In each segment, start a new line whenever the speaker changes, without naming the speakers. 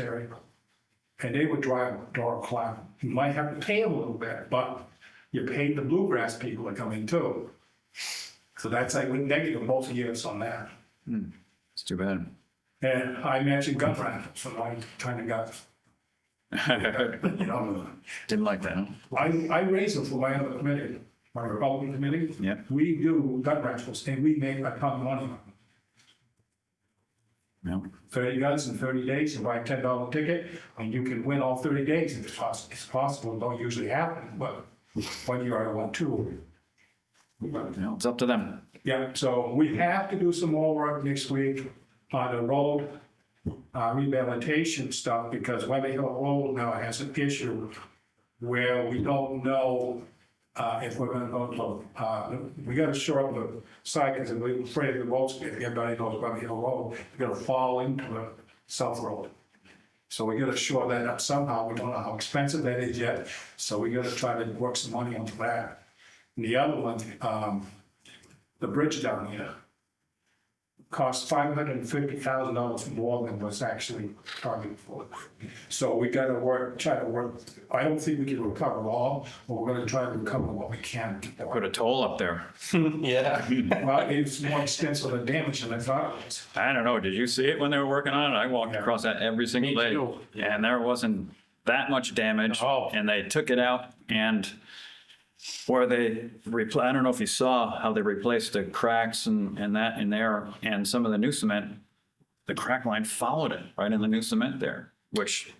area. And they would drive Doral Cloud. You might have to pay them a little bit, but you paid the bluegrass people to come in too. So that's like, we're negative both years on that.
It's too bad.
And I mentioned gun raffles, and I kind of got, you know,
Didn't like that.
I, I raised it for my other committee, my Republican committee.
Yep.
We do gun raffles, and we make a ton of money. on them.
No.
Thirty guns in thirty days, you buy a ten dollar ticket, and you can win all thirty days if it's possible, it's possible, it don't usually happen, but one year I won two. But
No, It's up to them.
Yeah, so we have to do some more work next week on the road uh, rehabilitation stuff because Webber Hill Road now has an issue where we don't know uh, if we're gonna go to, uh, we gotta shore up the sidewalks and we're afraid of the roads, if everybody knows Webber Hill Road, you're gonna fall into the South Road. So we gotta shore that up somehow. We don't know how expensive that is yet, so we gotta try to work some money onto that. And the other one, um, the bridge down here cost five hundred and fifty thousand dollars more than was actually targeted for. So we gotta work, try to work, I don't think we can recover all, but we're gonna try to recover what we can.
Put a toll up there.
Yeah.
Well, it's more extensive than damage than I thought it was.
I don't know. Did you see it when they were working on it? I walked
Yeah.
across that every single day.
too.
And there wasn't that much damage.
Oh.
No.
And they took it out and where they, repl- I don't know if you saw how they replaced the cracks and, and that in there and some of the new cement, the crack line followed it right in the new cement there, which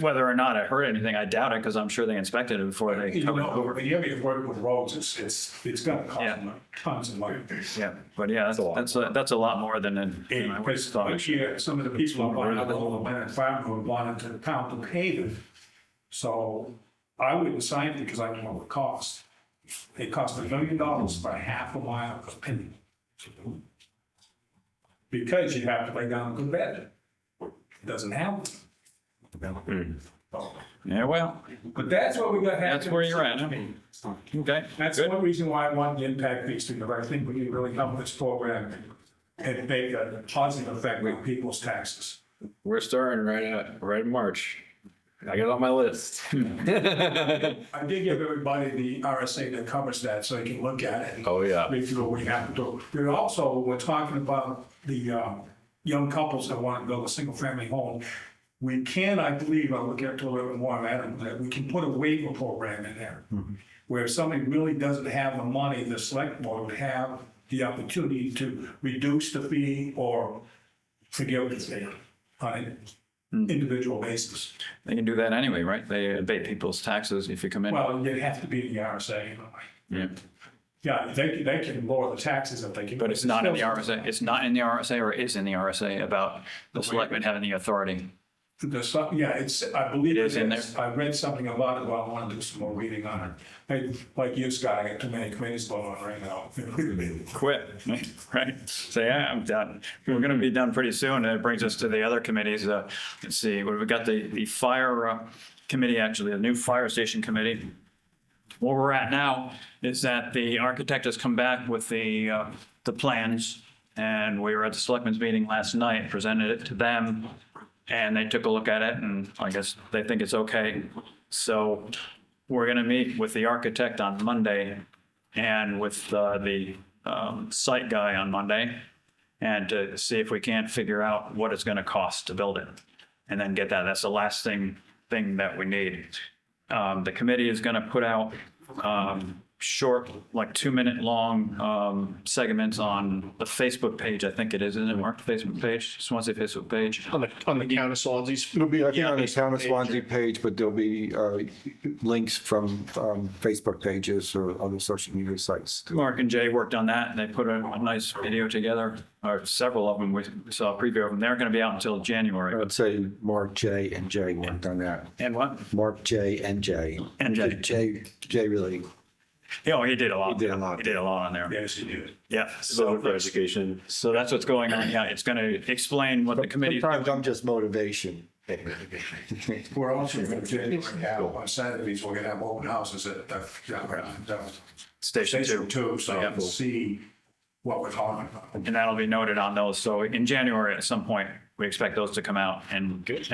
whether or not it hurt anything, I doubt it because I'm sure they inspected it before they
You
covered it
know,
over.
when you have work with roads, it's, it's, it's gonna cost
Yeah.
tons of money.
Yeah, but yeah, that's, that's, a- that's a lot more than, than I would have
Because
thought.
like here, some of the people on Bonnet, the whole Bennett Farm who wanted to pound the pavement. So I wouldn't sign it because I don't know what it costs. It cost a million dollars for a half a mile of paving. Because you have to lay down a good bed. It doesn't happen.
Yeah, well,
But that's what we got happening.
That's where you're at, huh? okay.
That's
good.
one reason why I want the impact fees to, because I think we can really help this program and make a positive effect on people's taxes.
We're starting right at, right in March. I got it on my list.
I did give everybody the RSA that covers that, so they can look at it.
Oh, yeah.
Read through what we have to do. We're also, we're talking about the uh, young couples that want to build a single-family home. We can, I believe, I'll look into a little bit more, Adam, that we can put a waiver program in there.
Mm-hmm.
Where if somebody really doesn't have the money, the select board would have the opportunity to reduce the fee or forgive the fee on an
Mm.
individual basis.
They can do that anyway, right? They abate people's taxes if you come in.
Well, it'd have to be the RSA, you know.
Yeah.
Yeah, they, they can lower the taxes if they can.
But it's not in the RSA, it's not in the RSA or is in the RSA about the selectmen having the authority.
There's some, yeah, it's, I believe
It
it
is in
is. I read something about it, but I want to do some more reading on it. I- Like you, Scott, I got too many committees going on right now.
Quit, right? Say, "Yeah, I'm done. We're going to be done pretty soon. And it brings us to the other committees. Uh, Let's see, we've got the, the fire uh, committee, actually, the new fire station committee. Where we're at now is that the architect has come back with the, uh, the plans. And we were at the selectmen's meeting last night, presented it to them. And they took a look at it and I guess they think it's okay. So we're going to meet with the architect on Monday and with uh, the um, site guy on Monday and to see if we can't figure out what it's going to cost to build it and then get that. That's the last thing, thing that we need. Um, The committee is going to put out um, short, like two-minute-long um, segments on the Facebook page, I think it is, isn't it, Mark? Facebook page, Swansea Facebook page.
On the, on the town of Swansea's.
It'll be, I think,
Yeah,
on the town of
Facebook page.
Swansea page, but there'll be uh, links from um, Facebook pages or other social media sites.
Mark and Jay worked on that, and they put a, a nice video together, or several of them. We saw a preview of them. They're going to be out until January.
I'd say Mark J and J worked on that.
And what?
Mark J and J.
And J.
J, J really,
Oh, he did a lot.
He did a lot.
He did a lot on there.
Yes, you do.
Yeah.
Voter for
So,
education.
so that's what's going on. Yeah, it's going to explain what the committee.
sometimes I'm just motivation.
We're also going to, have on Saturdays, we're going to have open houses at the, the
Station
station
two.
too, so
Yeah.
we'll see what we're talking about.
And that'll be noted on those. So in January, at some point, we expect those to come out and